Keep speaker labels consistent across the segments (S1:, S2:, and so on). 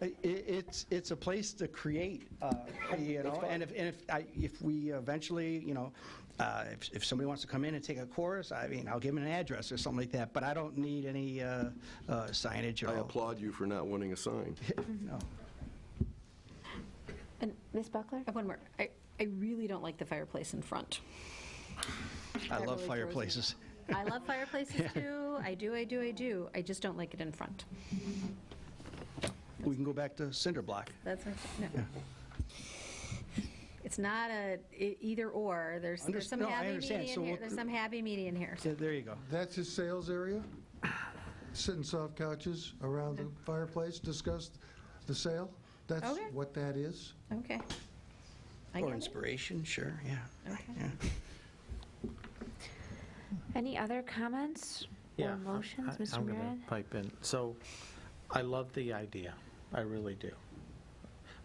S1: It, it's, it's a place to create, uh, you know, and if, and if, I, if we eventually, you know, uh, if, if somebody wants to come in and take a course, I mean, I'll give them an address or something like that, but I don't need any uh, uh, signage or.
S2: Oh.
S3: I applaud you for not wanting a sign.
S2: Mm-hmm.
S1: No.
S4: And Ms. Buckler?
S2: Uh, One more. I, I really don't like the fireplace in front.
S1: I love
S2: That really throws me off.
S1: fireplaces.
S2: I love fireplaces too. I do, I do, I do. I just don't like it in front.
S1: We can go back to cinder block.
S2: That's my, no. It's not a e- either or. There's, there's
S1: Underst-
S2: some
S1: no, I
S2: happy
S1: understand. So
S2: median here.
S1: we'll-
S2: There's some happy median here.
S1: Yeah, There you go.
S5: That's his sales area? Sitting soft couches around the fireplace, discuss the sale? That's
S2: Okay.
S5: what that is?
S2: Okay. I
S1: Or
S2: get it.
S1: inspiration, sure, yeah.
S2: Okay.
S1: yeah.
S4: Any other comments
S6: Yeah,
S4: or
S6: I'm-
S4: motions,
S6: I-
S4: Mr.
S6: I'm going
S4: Murin?
S6: to pipe in. So I love the idea. I really do.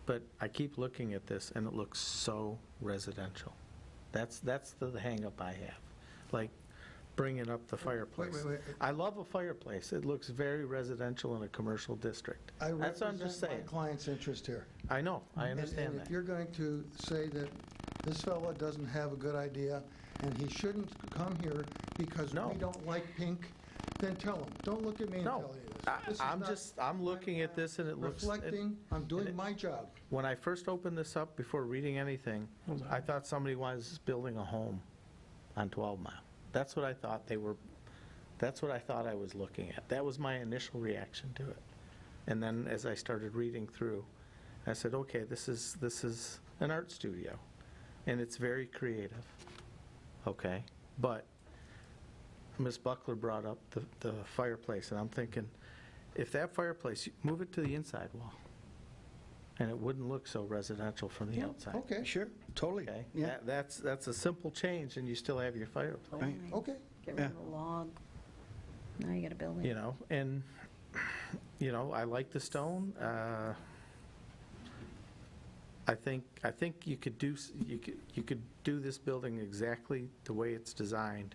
S6: But I keep looking at this and it looks so residential. That's, that's the hangup I have. Like bringing up the fireplace.
S5: wait.
S6: I love a fireplace. It looks very residential in a commercial district.
S5: I
S6: That's what I'm just
S5: represent my
S6: saying.
S5: client's interest here.
S6: I know, I
S5: And-
S6: understand
S5: And if
S6: that.
S5: you're going to say that this fella doesn't have a good idea, and he shouldn't come here because
S6: No.
S5: we don't like pink, then tell him. Don't look at me and
S6: No,
S5: tell you this.
S6: I-
S5: This is
S6: I'm
S5: not-
S6: just- I'm looking at this and it looks- it-
S5: Reflecting, I'm doing
S6: it-
S5: my job.
S6: When I first opened this up, before reading anything, I thought somebody was building a home on 12 Mile. That's what I thought they were, that's what I thought I was looking at. That was my initial reaction to it. And then as I started reading through, I said, okay, this is, this is an art studio, and it's very creative, okay? But Ms. Buckler brought up the, the fireplace, and I'm thinking, if that fireplace, move it to the inside wall, and it wouldn't look so residential from the outside.
S5: Okay,
S1: Sure, totally.
S6: Okay?
S1: Yeah,
S6: That- That's, that's a simple change, and you still have your fireplace,
S1: right.
S5: okay.
S2: Oh Get rid of
S1: Yeah.
S2: the log. Now you got a building.
S6: you know? And, you know, I like the stone. uh, I think, I think you could do, s- you could, you could do this building exactly the way it's designed,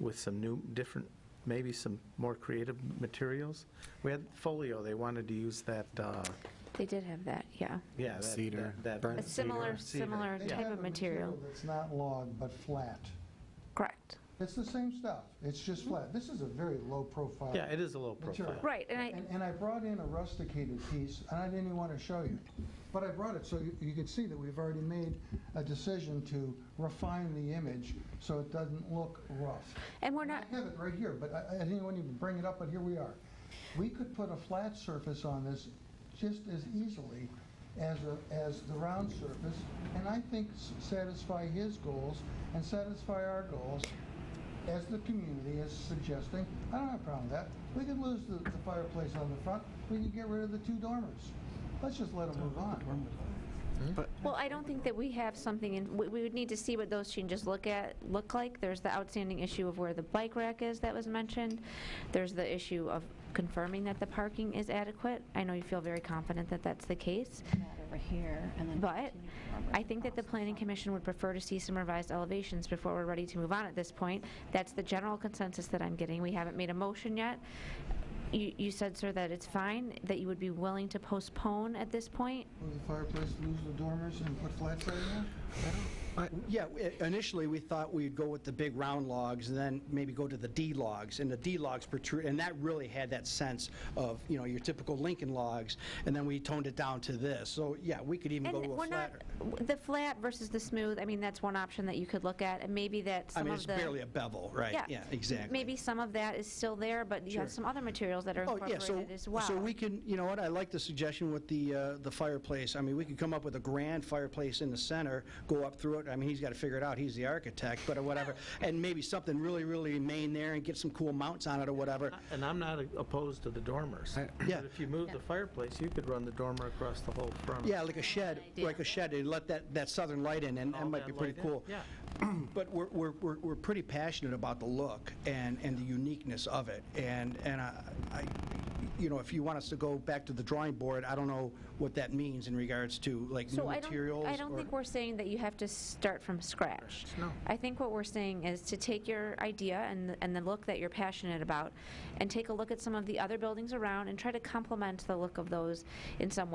S6: with some new, different, maybe some more creative materials. We had folio, they wanted to use that, uh,
S4: They did have that, yeah.
S6: yeah. that-
S7: Cedar,
S6: that-
S4: A
S7: burnt
S4: similar,
S6: Cedar.
S4: similar
S5: They
S4: type
S5: have
S4: of
S5: a
S4: material.
S5: That's not log, but flat.
S4: Correct.
S5: It's the same stuff. It's just flat. This is a very low profile.
S6: Mm-hmm. Yeah, it is a low profile.
S4: Right, and I,
S5: And, and I brought in a rusticated piece, and I didn't even want to show you, but I brought it so you, you could see that we've already made a decision to refine the image so it doesn't look rough.
S4: and we're not,
S5: I have it right here, but I, I didn't want to even bring it up, but here we are. We could put a flat surface on this just as easily as, a, as the round surface, and I think s- satisfy his goals and satisfy our goals as the community is suggesting. I don't have a problem with that. We could lose the, the fireplace on the front. We could get rid of the two dormers. Let's just let them move on.
S6: Hmm?
S4: well, I don't think that we have something, in. we we would need to see what those changes look at, look like. There's the outstanding issue of where the bike rack is that was mentioned. There's the issue of confirming that the parking is adequate. I know you feel very confident that that's the case.
S2: That over here and then.
S4: But
S2: continue forward
S4: I think that the
S2: across
S4: planning commission would prefer to see some revised elevations before we're ready to move on at this point. That's the general consensus that I'm getting. We haven't made a motion yet. You, you said, sir, that it's fine, that you would be willing to postpone at this point?
S5: Move the fireplace, lose the dormers, and put flats right in there?
S1: Yeah, i- initially, we thought we'd go with the big round logs, and then maybe go to the D logs, and the D logs protrude, and that really had that sense of, you know, your typical Lincoln logs, and then we toned it down to this. So, yeah, we could even go
S4: And
S1: to
S4: we're
S1: a
S4: not,
S1: flatter.
S4: w- the flat versus the smooth, I mean, that's one option that you could look at, and maybe that
S1: I
S4: some
S1: mean,
S4: of
S1: it's
S4: the.
S1: barely a bevel, right? Yeah, exactly.
S4: Maybe some of that is still there, but you have
S1: Sure.
S4: some other materials that are
S1: Oh, yeah, so,
S4: incorporated as well.
S1: so we can, you know what, I like the suggestion with the, uh, the fireplace. I mean, we could come up with a grand fireplace in the center, go up through it, I mean, he's got to figure it out, he's the architect, but whatever, and maybe something really, really main there and get some cool mounts on it or whatever.
S6: And I'm not opposed to the dormers.
S1: Yeah.
S6: But if you move the fireplace, you could run the dormer across the whole front.
S1: Yeah, like a shed, like a shed, and let that, that southern light in, and that
S6: All
S1: might be pretty
S6: light in.
S1: cool.
S6: Yeah.
S1: But we're, we're, we're we're pretty passionate about the look and, and the uniqueness of it, and, and I, I- you know, if you want us to go back to the drawing board, I don't know what that means in regards to, like, new
S4: So I don't,
S1: materials.
S4: I don't
S1: or-
S4: think we're saying that you have to start from scratch.
S6: No.
S4: I think what we're saying is to take your idea and, the- and the look that you're passionate about, and take a look at some of the other buildings around, and try to complement the look of those in some way.